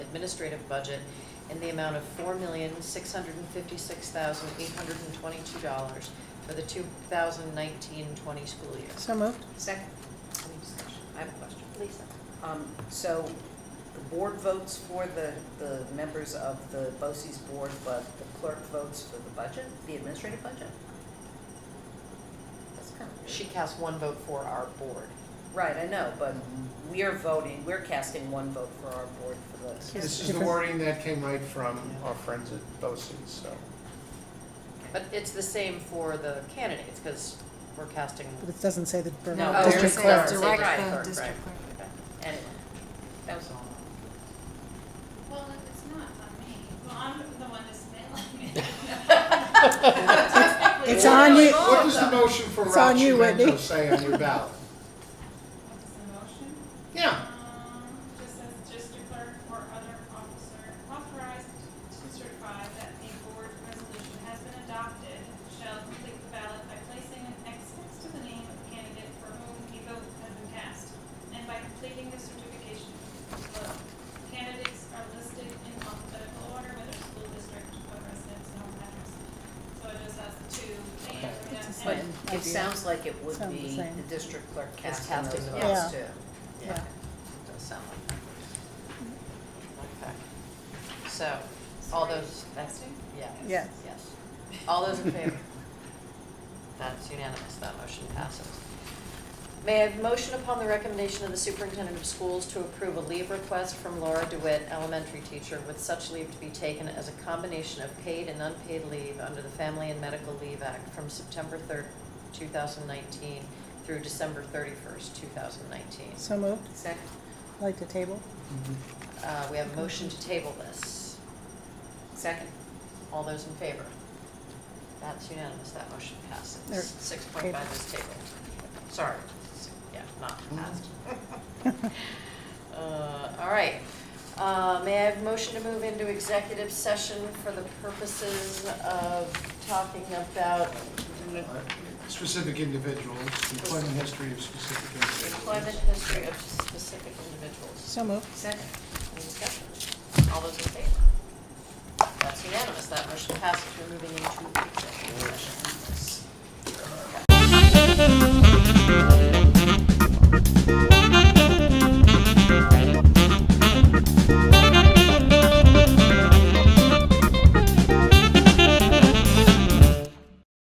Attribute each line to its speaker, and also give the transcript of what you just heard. Speaker 1: administrative budget in the amount of four million, six hundred and fifty-six thousand, eight hundred and twenty-two dollars for the 2019-20 school year.
Speaker 2: So moved.
Speaker 3: Second. Any discussion? I have a question.
Speaker 1: Lisa?
Speaker 3: Um, So the board votes for the, the members of the BOCES board, but the clerk votes for the budget, the administrative budget? That's kind of
Speaker 1: She
Speaker 3: weird.
Speaker 1: casts one vote for our board.
Speaker 3: Right, I know, but we are voting, we're casting one vote for our board for the,
Speaker 2: Yes,
Speaker 4: This is the
Speaker 2: different.
Speaker 4: wording that came right from our friends at BOCES, so.
Speaker 1: But it's the same for the candidates, because we're casting.
Speaker 2: But it doesn't say the
Speaker 3: No,
Speaker 2: Borough
Speaker 1: Oh,
Speaker 2: District
Speaker 1: they're saying-
Speaker 2: Clerk.
Speaker 1: they're saying
Speaker 5: Direct
Speaker 1: right,
Speaker 5: the
Speaker 1: right,
Speaker 5: district
Speaker 1: right. Okay.
Speaker 3: anyway. That was all.
Speaker 6: Well, it's not on me. Well, I'm the one that's mailing it.
Speaker 2: It's on you.
Speaker 4: What does the motion for
Speaker 2: It's on
Speaker 4: Rob
Speaker 2: you, Whitney.
Speaker 4: Chimento say on your ballot?
Speaker 6: What is the motion?
Speaker 4: Yeah,
Speaker 6: Um, just says district clerk or other officer authorized to certify that a board resolution has been adopted shall complete the ballot by placing an X next to the name of the candidate for whom a vote has been cast. And by completing the certification, vote. candidates are listed in alphabetical order, whether school district or residence and home address. So it just has to, and,
Speaker 2: It's a
Speaker 3: But
Speaker 6: and
Speaker 2: same.
Speaker 3: it sounds like it would
Speaker 2: Sounds the
Speaker 3: be
Speaker 2: same.
Speaker 3: the district clerk
Speaker 1: It's
Speaker 3: casting those
Speaker 1: casting the
Speaker 3: votes
Speaker 2: votes.
Speaker 3: too.
Speaker 1: Yeah, it does sound like that. Okay. So, all those, that's,
Speaker 6: Testing?
Speaker 1: yeah.
Speaker 2: Yes.
Speaker 1: Yes. All those in favor? That's unanimous, that motion passes. May I have a motion upon the recommendation of the superintendent of schools to approve a leave request from Laura DeWitt, elementary teacher, with such leave to be taken as a combination of paid and unpaid leave under the Family and Medical Leave Act from September third, two thousand nineteen through December thirty-first, two thousand nineteen.
Speaker 2: So moved.
Speaker 3: Second,
Speaker 2: I'd Like to table.
Speaker 1: Uh, we have a motion to table this.
Speaker 3: second,
Speaker 1: All those in favor? That's unanimous, that motion
Speaker 2: There-
Speaker 1: passes. Six point five is tabled. Sorry, s- yeah, not passed. Uh, all right. Uh, may I have motion to move into executive session for the purposes of talking about
Speaker 4: specific individuals, employment history of specific individuals.
Speaker 1: employment history of specific individuals?
Speaker 2: So moved.
Speaker 3: second.
Speaker 1: Any discussion? All those in favor? That's unanimous, that motion passes, we're moving into executive session.